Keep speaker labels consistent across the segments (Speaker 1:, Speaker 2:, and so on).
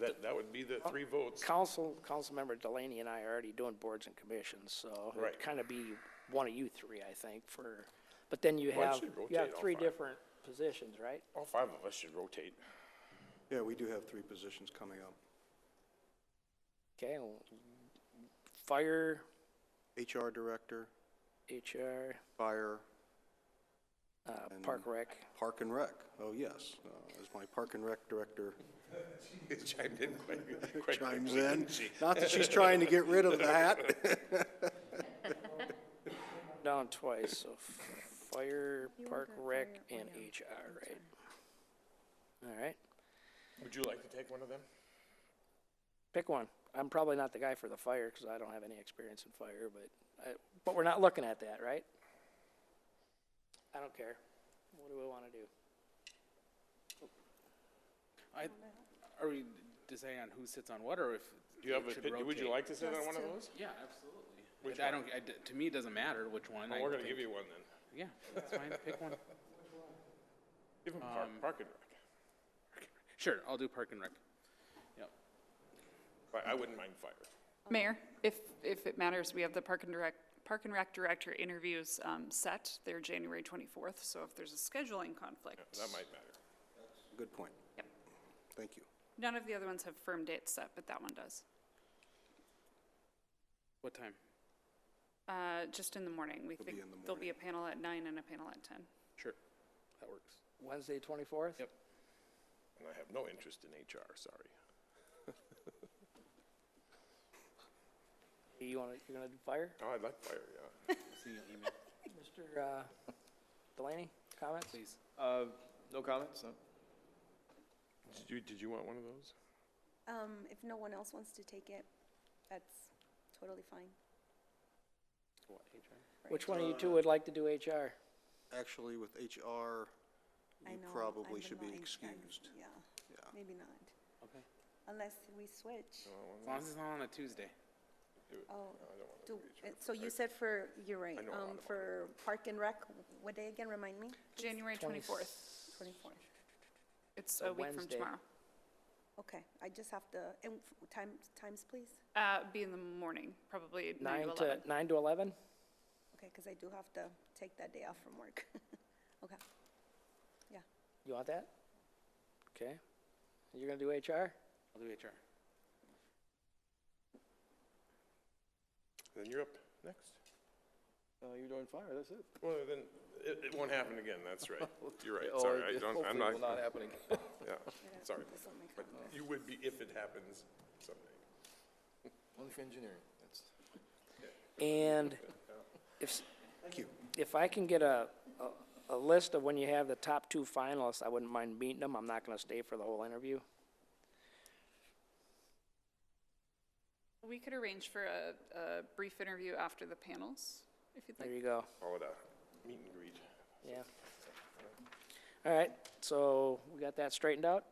Speaker 1: That, that would be the three votes.
Speaker 2: Council, Councilmember Delaney and I are already doing boards and commissions, so
Speaker 1: Right.
Speaker 2: it'd kind of be one of you three, I think, for, but then you
Speaker 1: Well, it
Speaker 2: have,
Speaker 1: should
Speaker 2: you have
Speaker 1: rotate all
Speaker 2: three
Speaker 1: five.
Speaker 2: different positions, right?
Speaker 1: All five of us should rotate.
Speaker 3: Yeah, we do have three positions coming up.
Speaker 2: Okay, well, fire,
Speaker 3: HR director,
Speaker 2: HR,
Speaker 3: fire,
Speaker 2: uh, park rec.
Speaker 3: park and rec. Oh, yes, uh, as my park and rec director
Speaker 1: It chimed in quite, quite
Speaker 3: chimes
Speaker 1: quickly,
Speaker 3: in.
Speaker 1: didn't she?
Speaker 3: Not that she's trying to get rid of that.
Speaker 2: Down twice, so fire, park rec, and HR, right? All right,
Speaker 1: Would you like to take one of them?
Speaker 2: pick one. I'm probably not the guy for the fire, because I don't have any experience in fire, but, I- but we're not looking at that, right? I don't care. What do we want to do?
Speaker 4: I, are we deciding on who sits on what, or if
Speaker 1: Do you have
Speaker 4: it
Speaker 1: a,
Speaker 4: should
Speaker 1: pick- would you
Speaker 4: rotate?
Speaker 1: like to sit on one of those?
Speaker 4: Yeah, absolutely.
Speaker 1: Which
Speaker 4: I
Speaker 1: one?
Speaker 4: don't. I d to me, it doesn't matter which one.
Speaker 1: Well,
Speaker 4: I
Speaker 1: we're gonna
Speaker 4: think-
Speaker 1: give you one then.
Speaker 4: Yeah, that's fine. Pick one.
Speaker 1: Give him park,
Speaker 5: Um,
Speaker 1: park and rec.
Speaker 4: Sure, I'll do Park and Rec. Yep.
Speaker 1: But I wouldn't mind fire.
Speaker 6: Mayor, if, if it matters, we have the Park and Direct, Park and Rec Director interviews um, set. They're January 24th, so if there's a scheduling conflict.
Speaker 1: That might matter.
Speaker 3: Good point.
Speaker 6: Yep.
Speaker 3: Thank you.
Speaker 6: None of the other ones have firm dates set, but that one does.
Speaker 4: What time?
Speaker 6: Uh, Just in the morning. We think
Speaker 3: be in the
Speaker 6: there'll be a panel at nine and a panel at 10.
Speaker 4: Sure, that works.
Speaker 2: Wednesday, twenty-fourth?
Speaker 4: Yep.
Speaker 1: And I have no interest in HR, sorry.
Speaker 2: You want to, you're going to do fire?
Speaker 1: Oh, I'd like fire, yeah.
Speaker 4: See you email,
Speaker 2: Mr. uh, Delaney, comments?
Speaker 4: please.
Speaker 5: Uh, no comments, no?
Speaker 1: Did you, did you want one of those?
Speaker 7: Um, if no one else wants to take it, that's totally fine.
Speaker 4: What, HR?
Speaker 2: Which one of you two would like to do HR?
Speaker 3: Actually, with HR,
Speaker 7: I
Speaker 3: you
Speaker 7: know,
Speaker 3: probably
Speaker 7: I'm
Speaker 3: should be
Speaker 7: annoying. I'm-
Speaker 3: excused.
Speaker 7: Yeah,
Speaker 3: Yeah.
Speaker 7: maybe not,
Speaker 4: Okay. As
Speaker 7: unless we switch.
Speaker 4: long as it's not on a Tuesday.
Speaker 7: Oh, do, uh, so you said for, you're right,
Speaker 1: know a lot
Speaker 7: um, for Park and Rec, what day again, remind me?
Speaker 6: January 24th.
Speaker 7: 24.
Speaker 6: It's
Speaker 2: A
Speaker 6: a week from
Speaker 2: Wednesday.
Speaker 6: tomorrow.
Speaker 7: Okay, I just have to, and f- time, times, please?
Speaker 6: Uh, Be in the morning, probably
Speaker 2: Nine
Speaker 6: nine to
Speaker 2: to,
Speaker 6: 11.
Speaker 2: nine to 11?
Speaker 7: Okay, because I do have to take that day off from work. Okay, yeah.
Speaker 2: You want that? Okay. You're going to do HR?
Speaker 4: I'll do HR.
Speaker 1: Then you're up next.
Speaker 5: No, Uh, you're doing fire, that's it.
Speaker 1: Well, then, it, it won't happen again, that's right. You're right,
Speaker 5: Oh,
Speaker 1: sorry,
Speaker 5: it-
Speaker 1: I
Speaker 5: it
Speaker 1: don't, I'm
Speaker 5: hopefully will not
Speaker 1: not,
Speaker 5: happen again.
Speaker 1: yeah, sorry.
Speaker 7: This on my
Speaker 1: But
Speaker 7: calendar.
Speaker 1: you would be if it happens someday.
Speaker 5: Only for engineering, that's.
Speaker 2: And if, s-
Speaker 3: Thank you.
Speaker 2: if I can get a, a- a list of when you have the top two finalists, I wouldn't mind meeting them. I'm not going to stay for the whole interview.
Speaker 6: We could arrange for a, a brief interview after the panels, if you'd
Speaker 2: There
Speaker 6: like.
Speaker 2: you go.
Speaker 1: Call it a meet and greet.
Speaker 2: Yeah. All right, so we got that straightened out?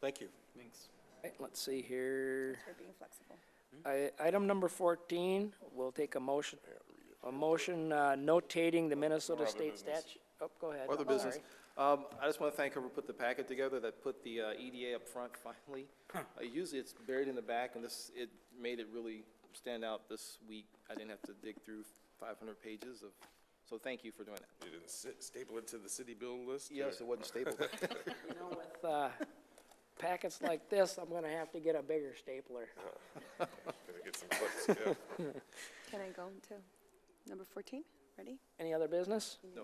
Speaker 3: Thank you.
Speaker 4: Thanks.
Speaker 2: All right, Let's see here.
Speaker 7: Thanks for being flexible.
Speaker 2: I- Item number 14, we'll take a motion, a motion uh, notating the Minnesota
Speaker 1: other
Speaker 2: State
Speaker 1: business.
Speaker 2: statute. Oh, go ahead.
Speaker 5: Other
Speaker 2: I'm
Speaker 5: business.
Speaker 2: sorry.
Speaker 5: Um, I just want to thank whoever put the packet together that put the uh, EDA up front finally. Uh, Usually it's buried in the back and this, it made it really stand out this week. I didn't have to dig through 500 pages of, so thank you for doing that.
Speaker 1: You didn't sit- staple it to the city bill list? or-
Speaker 5: Yes, it wasn't stapled.
Speaker 2: With uh, packets like this, I'm going to have to get a bigger stapler.
Speaker 1: Gonna get some clips, yeah.
Speaker 7: Can I go to number 14? Ready?
Speaker 2: Any other business?
Speaker 5: No,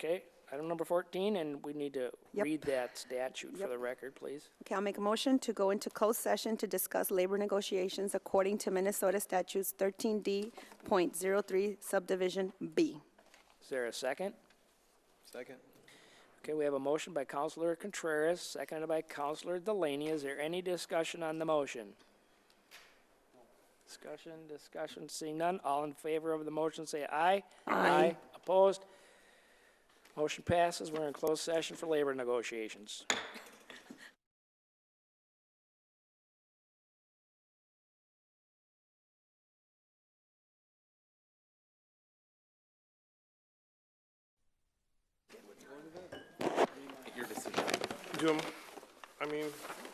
Speaker 2: Okay, item number 14, and we need to
Speaker 7: Yep.
Speaker 2: read that statute for
Speaker 7: Yep.
Speaker 2: the record, please.
Speaker 7: Okay, I'll make a motion to go into closed session to discuss labor negotiations according to Minnesota statutes 13D.03 subdivision B.
Speaker 2: Is there a second?
Speaker 5: second?
Speaker 2: Okay, we have a motion by Counselor Contreras, seconded by Counselor Delaney. Is there any discussion on the motion? Discussion, discussion, seeing none. All in favor of the motion, say aye. Aye. Opposed? Motion passes. We're in closed session for labor negotiations.
Speaker 4: Your decision.
Speaker 1: Do 'em- I mean,